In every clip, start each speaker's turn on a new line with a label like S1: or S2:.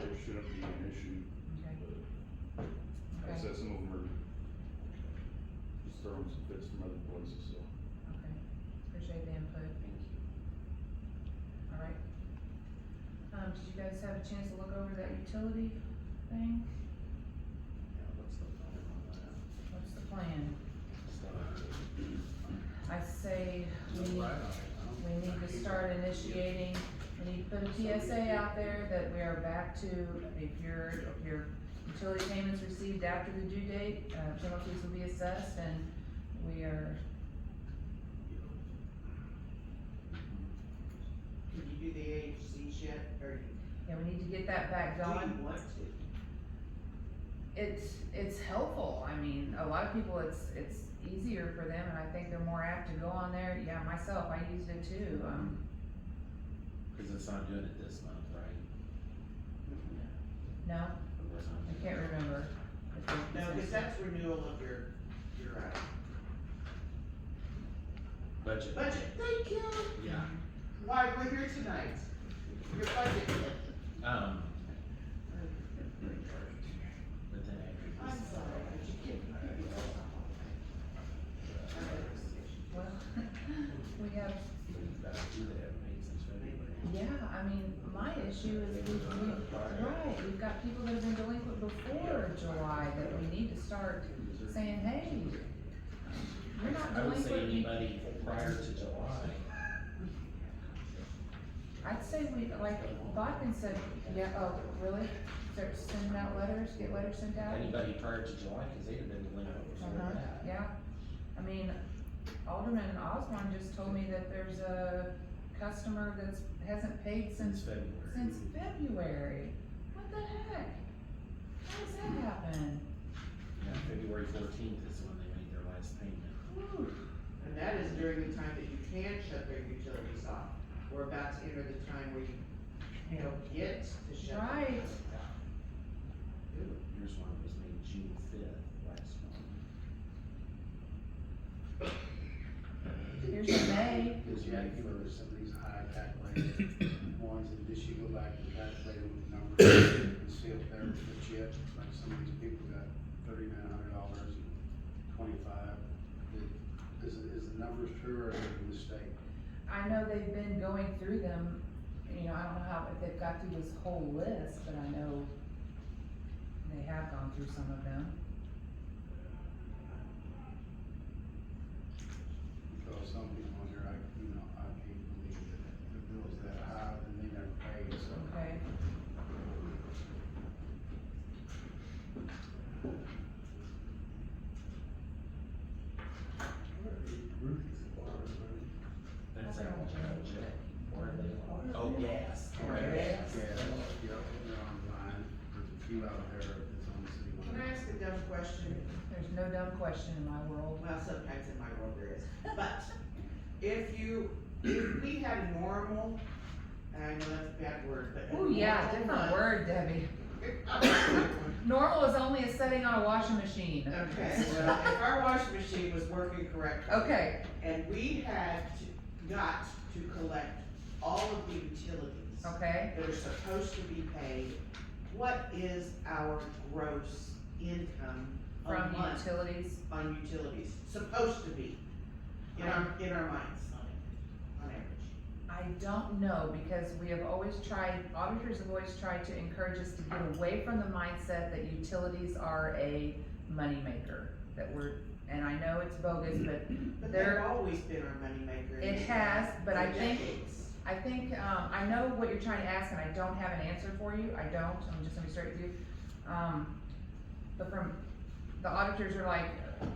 S1: gonna be an issue,
S2: Okay.
S1: but like I
S2: Okay.
S1: said, some of them are just throwing some fits from other places, so.
S2: Okay, appreciate the input. Thank you. All right. Um, did you guys have a chance to look over that utility thing?
S3: Yeah, what's the plan on that?
S2: What's the plan?
S3: So,
S2: I say we
S3: no
S2: need,
S3: right on it, I don't
S2: we need
S3: think
S2: to
S3: he's-
S2: start initiating, we need to put a PSA out there that we are back to, if your, if your utility payments received after the due date, uh, penalties will be assessed and we are,
S4: Can you do the AHCs yet, or do
S2: yeah, we need to get that back done.
S4: you want to?
S2: it's it's helpful. I mean, a lot of people it's it's easier for them, and I think they're more apt to go on there. Yeah, myself, I used it too. Um,
S3: Cause it's not doing it this month, right?
S2: no,
S3: Or it's not
S2: I
S3: doing
S2: can't
S3: it-
S2: remember.
S4: No, cause that's renewal of your, your, uh,
S3: Budget,
S4: budget, thank you,
S3: yeah,
S4: why, we're here tonight, your budget,
S3: um. But then I.
S4: I'm sorry, but you can't.
S3: uh,
S2: well, we have.
S3: That's two that have made since February.
S2: Yeah, I mean, my issue is we we right. We've got people that have been delinquent before July that we need to start saying, hey, you're not
S3: I would say
S2: delinquent. you-
S3: anybody prior to July,
S2: I'd say we, like, Bodkin said, yeah, oh, really? Start sending out letters, get letters sent out?
S3: anybody prior to July, cause they'd have been delinquent before
S2: Uh-huh,
S3: that.
S2: yeah. I mean, Alderman Osborne just told me that there's a customer that's, hasn't paid since,
S3: Since February.
S2: since February. What the heck? How does that happen?
S3: Yeah, February fourteenth is when they made their last payment.
S2: Whew.
S4: And that is during the time that you can shut their utilities off, we're about to enter the time where you, you know, get to shut. them
S2: Right.
S4: off. Ooh.
S3: Here's one that was made June fifth last month.
S2: Here's your May.
S5: Because you had, you know, there's some of these high calculated ones, and just you go back and calculate them with numbers, and see if they're legit, like some of these people got thirty-nine hundred dollars and twenty-five. Is, is the numbers true or is it a mistake?
S2: I know they've been going through them, you know, I don't know how, if they've got through this whole list, but I know they have gone through some of them.
S5: Because some people on here, I, you know, I can't believe that the bill's that high, and they never paid, so.
S2: Okay.
S3: That's
S2: Okay.
S3: how much I owe Jack. Or they, oh, gas.
S5: Yeah, yeah, they're online, there's a few out there that's on the city.
S4: Can I ask a dumb question?
S2: There's no dumb question in my world.
S4: Well, sometimes in my world there is, but if you, if we had normal, I know that's a bad word, but. a
S2: Oh yeah,
S4: normal
S2: different
S4: month-
S2: word, Debbie. Normal is only a setting on a washing machine.
S4: Okay, well, if our washing machine was working correctly.
S2: Okay,
S4: And we had to- got to collect all of the utilities
S2: okay,
S4: that are supposed to be paid, what is our gross income a
S2: from
S4: month
S2: utilities,
S4: on utilities, supposed to be, in our, in our minds, on average.
S2: I don't know, because we have always tried, auditors have always tried to encourage us to get away from the mindset that utilities are a moneymaker, that we're, and I know it's bogus, but
S4: But
S2: There-
S4: they've always been our moneymaker. in
S2: It
S4: this
S2: has,
S4: town
S2: but I
S4: for
S2: think-
S4: decades.
S2: I think, um, I know what you're trying to ask, and I don't have an answer for you, I don't, I'm just gonna be straight with you. Um, but from, the auditors are like,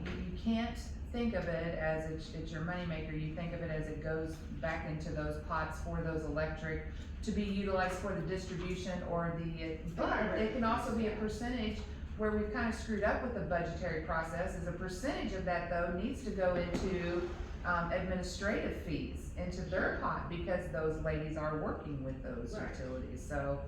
S2: you, you can't think of it as it's, it's your moneymaker, you think of it as it goes back into those pots for those electric to be utilized for the distribution or the, but it can also be a percentage where we've kind of screwed up with the budgetary process, is a percentage of that though needs to go into um, administrative fees into their pot because those ladies are working with those
S4: Right.
S2: utilities, so.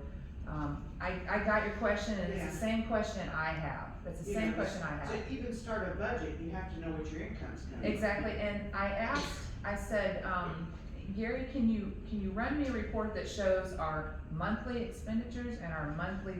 S2: Um, I, I got your question and it's the same question I have, it's the
S4: You
S2: same
S4: know,
S2: question I have.
S4: To even start a budget, you have to know what your income's gonna be.
S2: Exactly, and I asked, I said, um, Gary, can you, can you run me a report that shows our monthly expenditures and our monthly